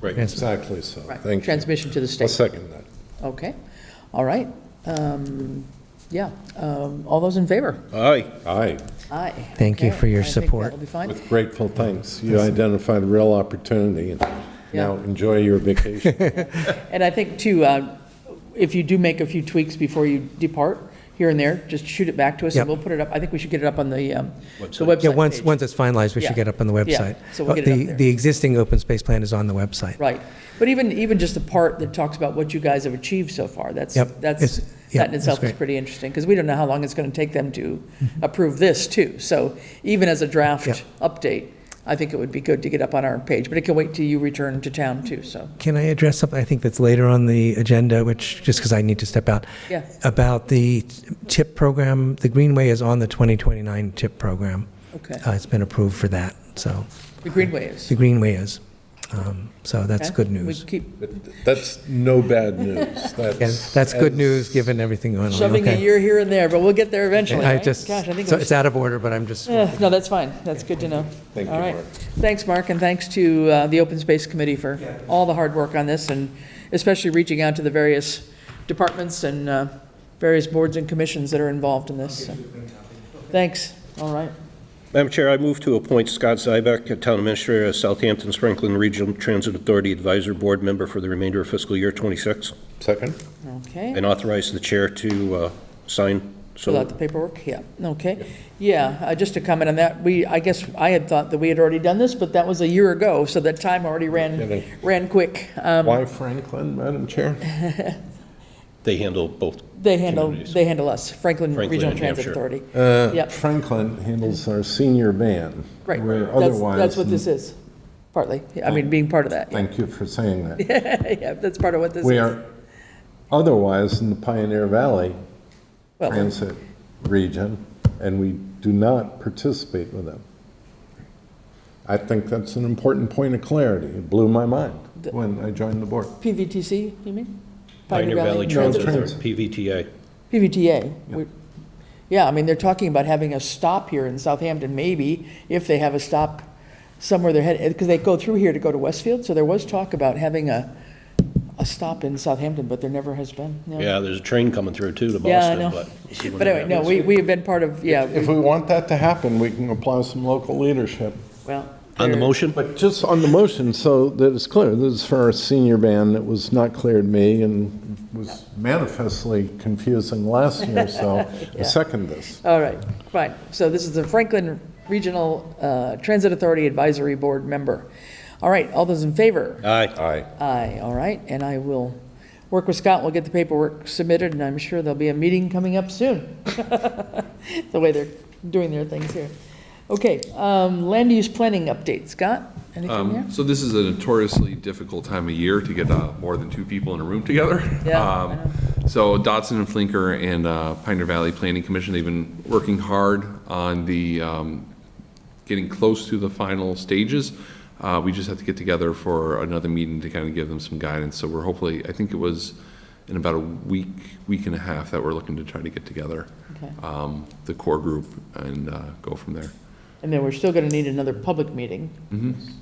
Right. Exactly so. Right, Thank you. transmission to the state. I'll second that. Okay, all right. Um, Yeah, um, all those in favor? Aye. Aye, Aye. Thank you Okay, for your I think support. That'll be fine. with grateful thanks. You identified a real opportunity, and now Yeah. enjoy your vacation. And I think too, uh, if you do make a few tweaks before you depart here and there, just shoot it back to us and Yep. we'll put it up. I think we should get it up on the, um, the website Yeah, once, page. once it's finalized, we Yeah. should get up on the Yeah, website. so we'll Uh, get it up the- there. The existing open space plan is on the website. Right. But even, even just the part that talks about what you guys have achieved so far, that's, Yep. that's, It's- yeah, that in itself is that's great. Mm-hmm. pretty interesting, because we don't know how long it's going to take them to approve this, too. So even as a Yeah. draft update, I think it would be good to get up on our page, but it can wait till you return to town, too, so, Can I address something I think that's later on the agenda, which, just because I need to step out? Yeah. About the TIP program, the Greenway is on the 2029 TIP program. okay. Uh, It's been approved for that, so, The Greenway is. the Greenway is. Um, So that's okay? good We news. keep That's no bad news. Yeah, That's. That's good as- news, given everything going on. shoving a Okay. year here and there, but we'll get there eventually, I right? just, Gosh, I think so we it's out of order, but I'm just, Yeah, Eh, No, that's fine. That's good to know. Thank you, All right. Mark. Thanks, Mark, and thanks to uh, the Open Space Committee for all the hard work on this, and especially reaching out to the various departments and uh, various boards and commissions that are involved in this. so. Thanks. All right. Madam Chair, I move to appoint Scott Zybeck, Town Administrator of Southampton Franklin Regional Transit Authority Advisor Board Member for the remainder of fiscal year '26, Second? Okay. and authorize the chair to uh, sign. Fill out So, the paperwork. Yeah, okay. Yeah, uh, just to comment on that, we, I guess I had thought that we had already done this, but that was a year ago, so that time already ran, Kidding. ran quick. Um, Why Franklin, Madam Chair? they handle both. They handle, Communities. they handle us, Franklin Franklin Regional and Transit Hampshire. Authority. Uh, Yep. Franklin handles our senior ban. Right, where that's, otherwise- Oh. that's what this is, partly, I mean, being part of that, Thank you for saying that. yeah, that's part of what this is. We are otherwise in the Pioneer Valley Well- Transit region, and we do not participate with them. I think that's an important point of clarity. It blew my mind when I joined the board. PVTC, you mean? Pioneer Valley Transit, Transit. Authority, PVTA. PVTA, We- yeah, I mean, they're talking about having a stop here in Southampton, maybe, if they have a stop somewhere they're headed, because they go through here to go to Westfield, so there was talk about having a, a stop in Southampton, but there never has been, yeah. Yeah, there's a train coming through too to Yeah, I Boston, know. but. we'll see when But that anyway, no, happens. we, we have been part of, yeah, If we- we want that to happen, we can apply some local leadership. well. On the there- motion? But just on the motion, so that it's clear, this is for our senior ban that was not clear to me and was manifestly confusing last year, so I second this. All right, fine. So this is the Franklin Regional uh, Transit Authority Advisory Board member. All right, all those in favor? Aye. Aye. Aye, all right, and I will work with Scott, we'll get the paperwork submitted, and I'm sure there'll be a meeting coming up soon. The way they're doing their things here. Okay, um, land use planning update. Scott, anything there? So this is a notoriously difficult time of year to get uh, more than two people in a room together. Yeah, I Um, know. So Dotson and Flinker and uh, Pioneer Valley Planning Commission, they've been working hard on the, um, getting close to the final stages. Uh, We just have to get together for another meeting to kind of give them some guidance. So we're hopefully, I think it was in about a week, week and a half that we're looking to try to get together, Okay. um, the core group, and uh, go from there. And then we're still going to need another public meeting,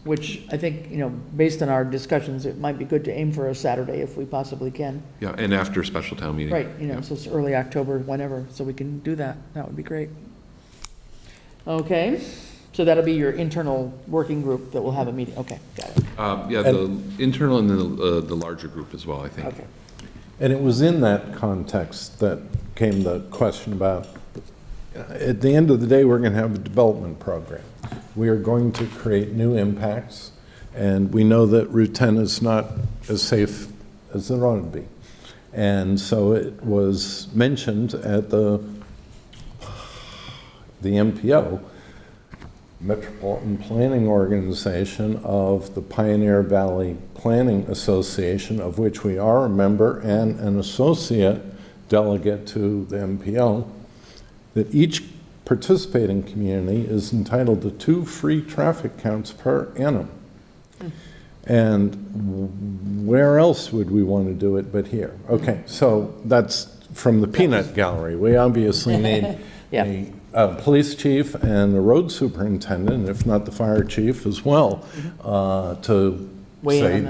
which I think, you know, based on our discussions, it might be good to aim for a Saturday if we possibly can. Yeah, and after a special town meeting. Right, you know, Yeah. so it's early October, whenever, so we can do that. That would be great. Okay, so that'll be your internal working group that will have a meeting. Okay, got it. Um, Yeah, the internal and the, uh, the larger group as well, I think. Okay. And it was in that context that came the question about, at the end of the day, we're going to have a development program. We are going to create new impacts, and we know that Route 10 is not as safe as it ought to be. And so it was mentioned at the, the MPO, Metropolitan Planning Organization of the Pioneer Valley Planning Association, of which we are a member and an associate delegate to the MPO, that each participating community is entitled to two free traffic counts per annum. And w- where else would we want to do it but here? Okay, so that's from the peanut gallery. We obviously need Yeah. a uh, police chief and a road superintendent, if not the fire chief as well, uh, to Mm-hmm. Weigh in on say, that.